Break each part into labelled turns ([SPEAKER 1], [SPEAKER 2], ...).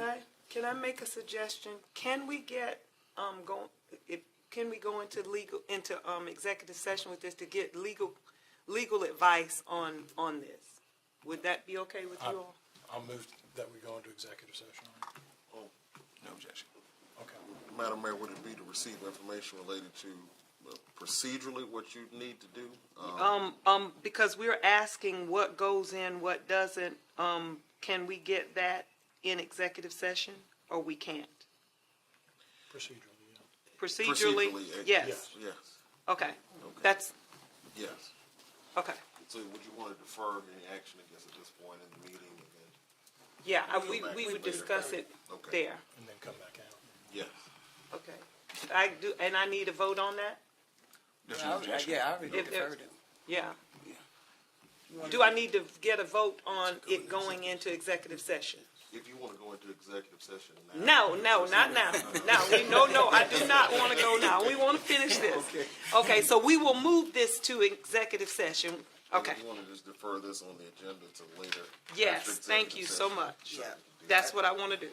[SPEAKER 1] I, can I make a suggestion? Can we get, um, go, if, can we go into legal, into, um, executive session with this to get legal, legal advice on, on this? Would that be okay with you all?
[SPEAKER 2] I'll move that we go into executive session.
[SPEAKER 3] Oh, No objection.
[SPEAKER 2] Okay.
[SPEAKER 4] Madam Mayor, would it be to receive information related to uh, procedurally what you need to do? Uh,
[SPEAKER 1] Um, um, because we're asking what goes in, what doesn't, um, can we get that in executive session, or we can't?
[SPEAKER 2] Procedurally, yeah.
[SPEAKER 1] Procedurally,
[SPEAKER 4] Procedurally, eh,
[SPEAKER 1] yes,
[SPEAKER 2] yes.
[SPEAKER 4] Yes,
[SPEAKER 1] okay, that's,
[SPEAKER 4] yes.
[SPEAKER 1] okay,
[SPEAKER 4] So would you want to defer any action, I guess, at this point in the meeting? and then-
[SPEAKER 1] yeah, I-
[SPEAKER 4] We'll
[SPEAKER 1] we,
[SPEAKER 4] come back
[SPEAKER 1] we would
[SPEAKER 4] later.
[SPEAKER 1] discuss it
[SPEAKER 4] Okay.
[SPEAKER 1] there.
[SPEAKER 2] And then come back out.
[SPEAKER 3] Uh,
[SPEAKER 4] Yes.
[SPEAKER 1] Okay. I do, and I need a vote on that?
[SPEAKER 3] There's
[SPEAKER 5] I
[SPEAKER 3] no
[SPEAKER 5] already-
[SPEAKER 3] objection.
[SPEAKER 5] Yeah, I already
[SPEAKER 1] If there's-
[SPEAKER 5] deferred it.
[SPEAKER 1] Yeah. Do I need to get a vote on it going into executive session?
[SPEAKER 4] If you want to go into executive session now.
[SPEAKER 1] No, no, not now. No, we, no, no, I do not want to go now. We want to finish this. Okay, so we will move this to executive session.
[SPEAKER 4] And
[SPEAKER 1] Okay.
[SPEAKER 4] If you want to just defer this on the agenda to later. after
[SPEAKER 1] Yes, thank
[SPEAKER 4] executive
[SPEAKER 1] you so
[SPEAKER 4] session.
[SPEAKER 1] much.
[SPEAKER 5] Yeah.
[SPEAKER 1] That's what I want to do.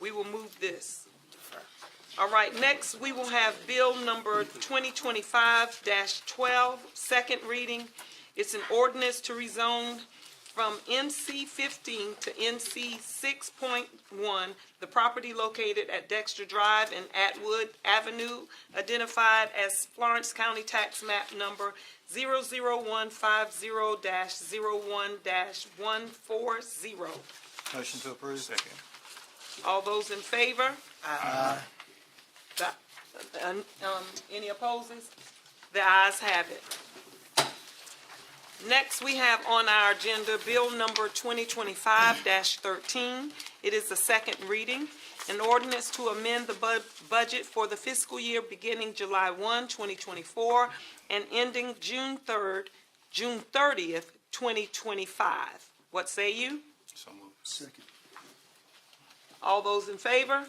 [SPEAKER 1] We will move this. All right, next, we will have bill number 2025-12, second reading. It's an ordinance to rezone from NC 15 to NC 6.1, the property located at Dexter Drive and Atwood Avenue, identified as Florence County Tax Map Number 00150-01-140.
[SPEAKER 3] Motion to approve. Second.
[SPEAKER 1] All those in favor? Aye. Um, any opposes? The ayes have it. Next, we have on our agenda Bill Number 2025-13. It is the second reading, an ordinance to amend the bu- budget for the fiscal year beginning July 1, 2024, and ending June 3rd, June 30th, 2025. What say you?
[SPEAKER 3] So moved.
[SPEAKER 5] Second.
[SPEAKER 1] All those in favor?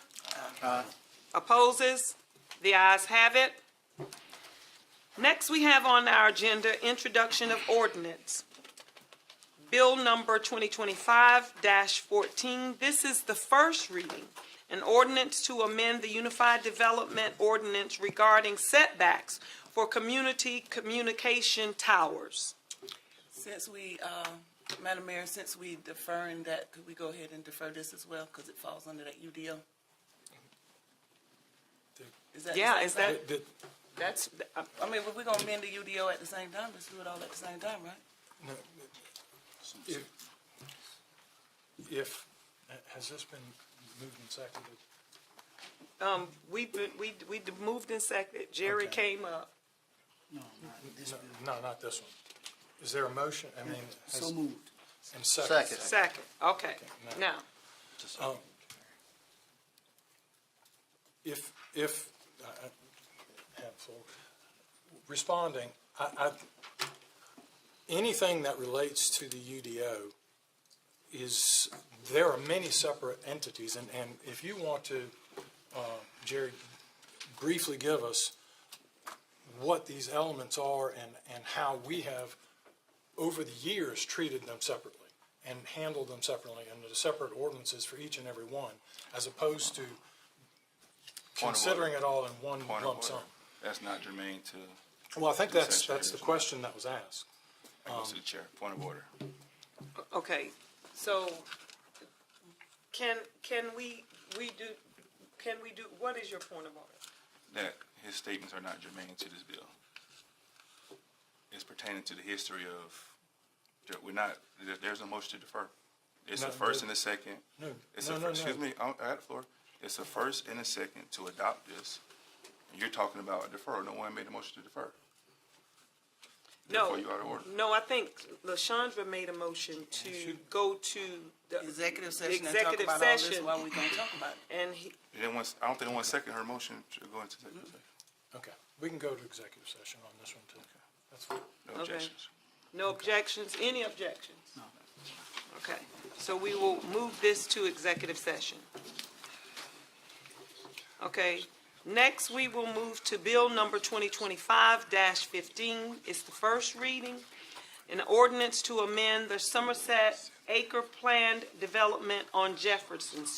[SPEAKER 1] Opposes? The ayes have it. Next, we have on our agenda introduction of ordinance. Bill number 2025-14. This is the first reading. An ordinance to amend the Unified Development Ordinance regarding setbacks for community communication towers.
[SPEAKER 5] Since we, uh, Madam Mayor, since we deferring that, could we go ahead and defer this as well? Because it falls under that UDO? Is that?
[SPEAKER 1] Yeah, is that,
[SPEAKER 2] Did- did-
[SPEAKER 1] that's, uh,
[SPEAKER 5] I mean, if we're gonna amend the UDO at the same time, let's do it all at the same time, right?
[SPEAKER 2] no, if- If, uh, has this been moved and seconded?
[SPEAKER 1] um, we've been, we, we moved and seconded. Jerry
[SPEAKER 2] Okay.
[SPEAKER 1] came up.
[SPEAKER 2] No, not this one. Is there a motion? I mean. has-
[SPEAKER 5] moved.
[SPEAKER 2] And second.
[SPEAKER 3] Second.
[SPEAKER 1] Second, okay.
[SPEAKER 2] no.
[SPEAKER 1] Now,
[SPEAKER 2] Um, If, if, I I have full, responding, I, I, anything that relates to the UDO is, there are many separate entities, and, and if you want to, uh, Jerry, briefly give us what these elements are and, and how we have, over the years, treated them separately and handled them separately under separate ordinances for each and every one, as opposed to
[SPEAKER 3] Point of
[SPEAKER 2] considering it all in one
[SPEAKER 3] Point of
[SPEAKER 2] lump sum.
[SPEAKER 3] order. That's not germane to,
[SPEAKER 2] Well, I think that's,
[SPEAKER 3] Essentially,
[SPEAKER 2] that's the
[SPEAKER 3] isn't it?
[SPEAKER 2] question that was asked.
[SPEAKER 3] that goes
[SPEAKER 2] Um,
[SPEAKER 3] to the chair. Point of order.
[SPEAKER 1] okay, so can, can we, we do, can we do, what is your point of order?
[SPEAKER 3] That his statements are not germane to this bill. It's pertaining to the history of, that we're not, there- there's no motion to defer. It's a
[SPEAKER 2] No,
[SPEAKER 3] first
[SPEAKER 2] no.
[SPEAKER 3] and a second.
[SPEAKER 2] No,
[SPEAKER 3] It's
[SPEAKER 2] no,
[SPEAKER 3] a
[SPEAKER 2] no,
[SPEAKER 3] first,
[SPEAKER 2] no.
[SPEAKER 3] excuse me, I I got the floor. It's a first and a second to adopt this. You're talking about a deferral. No one made a motion to defer.
[SPEAKER 1] No,
[SPEAKER 3] Therefore, you out of order.
[SPEAKER 1] no, I think LaShondra made a motion to go to the.
[SPEAKER 5] Executive session and talk about all this
[SPEAKER 1] session,
[SPEAKER 5] while we gonna talk about it.
[SPEAKER 1] And he,
[SPEAKER 3] They didn't want- I don't think they want to second her motion to go into executive session.
[SPEAKER 2] Okay, we can go to executive session on this one too. That's fine.
[SPEAKER 3] No objections.
[SPEAKER 1] no objections, any objections? No. Okay, so we will move this to executive session. Okay, next we will move to Bill number 2025-15. It's the first reading. An ordinance to amend the Somerset Acre Planned Development on Jefferson